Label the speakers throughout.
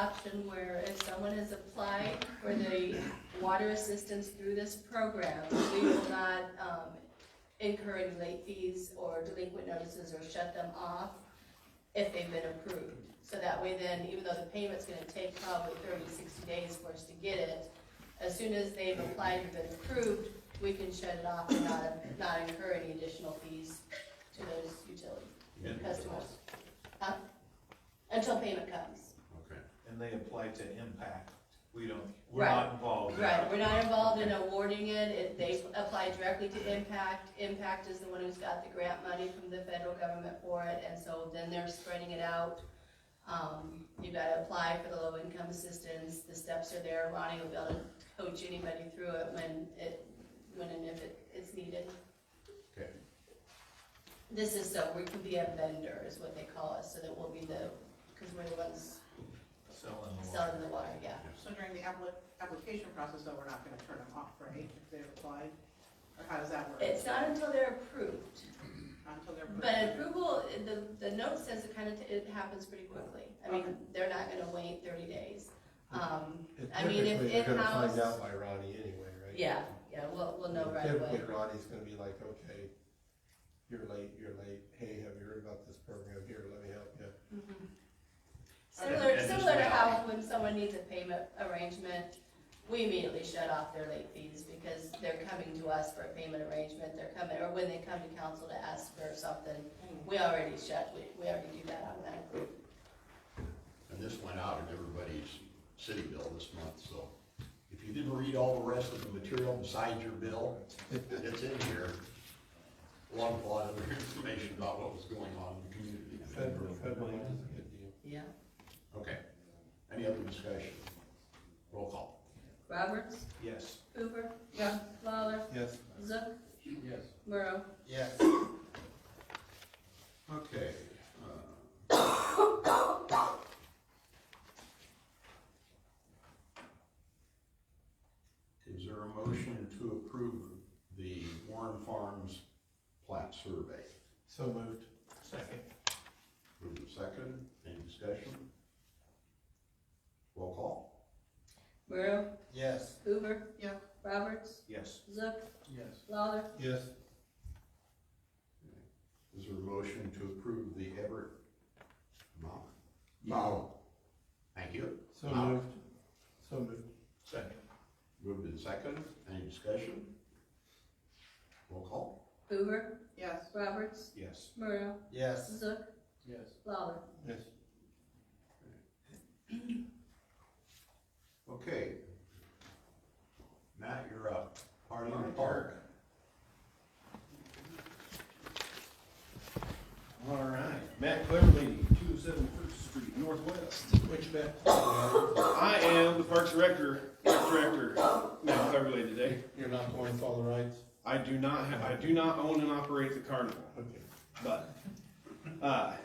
Speaker 1: option where if someone has applied for the water assistance through this program, we will not, um, incur any late fees or delinquent notices or shut them off if they've been approved. So that way then, even though the payment's gonna take probably 30, 60 days for us to get it, as soon as they've applied and been approved, we can shut it off and not, not incur any additional fees to those utility
Speaker 2: Yeah.
Speaker 1: customers. Huh? Until payment comes.
Speaker 2: Okay.
Speaker 3: and they apply to impact. We don't, we're
Speaker 1: Right.
Speaker 3: not involved. in
Speaker 1: Right,
Speaker 3: that.
Speaker 1: we're not involved in awarding it, it, they apply directly to Impact, Impact is the one who's got the grant money from the federal government for it, and so then they're spreading it out. Um, you gotta apply for the low income assistance, the steps are there, Ronnie will be able to coach anybody through it when it, when and if it, it's needed.
Speaker 2: Okay.
Speaker 1: This is so, we can be a vendor is what they call us, so that we'll be the, cause we're the ones
Speaker 3: Selling the water.
Speaker 1: selling the water, yeah.
Speaker 4: So during the appli- application process, though, we're not gonna turn them off, right, if they've applied? Or how does that work?
Speaker 1: It's not until they're approved.
Speaker 4: Not Until they're.
Speaker 1: But approval, the, the note says it kind of, it happens pretty quickly. I mean,
Speaker 4: Okay. they're
Speaker 1: they're not gonna wait thirty days. Um,
Speaker 5: It
Speaker 1: I mean, if
Speaker 5: Typically, you're gonna
Speaker 1: in-house-
Speaker 5: find out by Ronnie anyway, right?
Speaker 1: yeah, yeah, we'll, we'll know right away.
Speaker 5: Typically, Ronnie's gonna be like, okay, you're late, you're late, hey, have you heard about this program here, let me help you.
Speaker 1: Mhm.
Speaker 3: And-
Speaker 1: Similar,
Speaker 3: and
Speaker 1: similar to
Speaker 3: just-
Speaker 1: how when someone needs a payment arrangement, we immediately shut off their late fees because they're coming to us for a payment arrangement, they're coming, or when they come to council to ask for something, we already shut, we, we already do that automatically.
Speaker 2: And this went out in everybody's city bill this month, so if you didn't read all the rest of the material besides your bill, it's in here. Along with a lot of other information about what was going on in the
Speaker 5: Federal, federal
Speaker 2: community.
Speaker 5: money is a good deal.
Speaker 1: Yeah.
Speaker 2: Okay. Any other discussion? Roll call.
Speaker 1: Roberts,
Speaker 3: Yes.
Speaker 1: Hoover. Yeah. Lawler,
Speaker 5: Yes,
Speaker 1: Zook,
Speaker 2: Yes.
Speaker 1: Murrow.
Speaker 3: Yes.
Speaker 2: Okay. uh, Is there a motion to approve the Warren Farms plat survey?
Speaker 5: so moved.
Speaker 3: Second.
Speaker 2: Move to second, any discussion? Roll call?
Speaker 1: Murrow,
Speaker 5: Yes.
Speaker 1: Hoover.
Speaker 4: Yeah.
Speaker 1: Roberts,
Speaker 3: Yes.
Speaker 1: Zook,
Speaker 3: Yes.
Speaker 1: Lawler.
Speaker 5: Yes,
Speaker 2: Is there a motion to approve the Everett? No. No. Thank you.
Speaker 5: so moved, so moved.
Speaker 3: Second.
Speaker 2: Moved in second, any discussion? Roll call?
Speaker 1: Hoover,
Speaker 4: Yes,
Speaker 1: Roberts,
Speaker 3: Yes.
Speaker 1: Murrow,
Speaker 5: Yes.
Speaker 1: Zook. Yes. Lawler.
Speaker 5: Yes,
Speaker 2: Okay. Matt, you're up. Party in the park.
Speaker 6: All right, Matt Cleverly, two oh seven First Street Northwest, Winchback. I am the Parks Director, Director, Matt Cleverly today.
Speaker 5: you're not going to all the rights?
Speaker 6: I do not, ha- I do not own and operate the carnival,
Speaker 5: Okay.
Speaker 6: but, uh,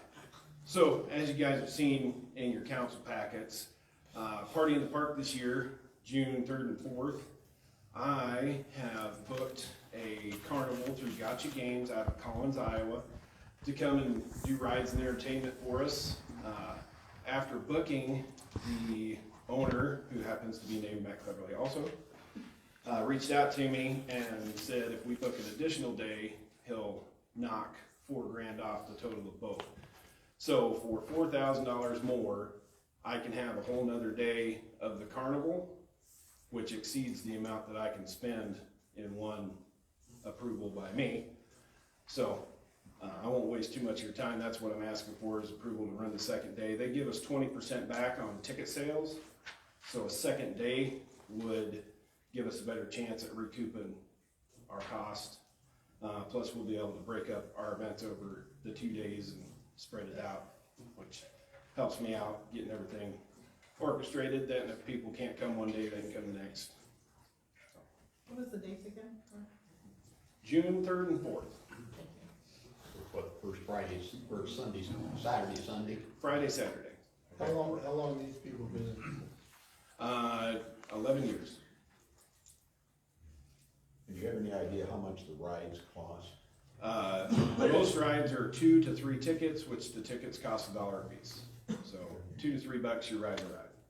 Speaker 6: so as you guys have seen in your council packets, uh, Party in the Park this year, June third and fourth, I have booked a carnival through Gotcha Games out of Collins, Iowa, to come and do rides and entertainment for us. Uh, After booking, the owner, who happens to be named Matt Cleverly also, uh, reached out to me and said if we book an additional day, he'll knock four grand off the total of both. So for four thousand dollars more, I can have a whole nother day of the carnival, which exceeds the amount that I can spend in one approval by me. So, uh, I won't waste too much of your time, that's what I'm asking for is approval to run the second day. They give us twenty percent back on ticket sales, so a second day would give us a better chance at recouping our cost. Uh, plus we'll be able to break up our events over the two days and spread it out, which helps me out getting everything orchestrated, then if people can't come one day, they can come the next.
Speaker 4: what was the date again?
Speaker 6: June third and fourth,
Speaker 2: What, first Fridays, first Sundays, Saturday, Sunday?
Speaker 6: Friday, Saturday,
Speaker 5: How long, how long these people been?
Speaker 6: uh, eleven years.
Speaker 2: Do you have any idea how much the rides cost?
Speaker 6: Uh, most rides are two to three tickets, which the tickets cost a dollar a piece. So two to three bucks, you're riding a ride.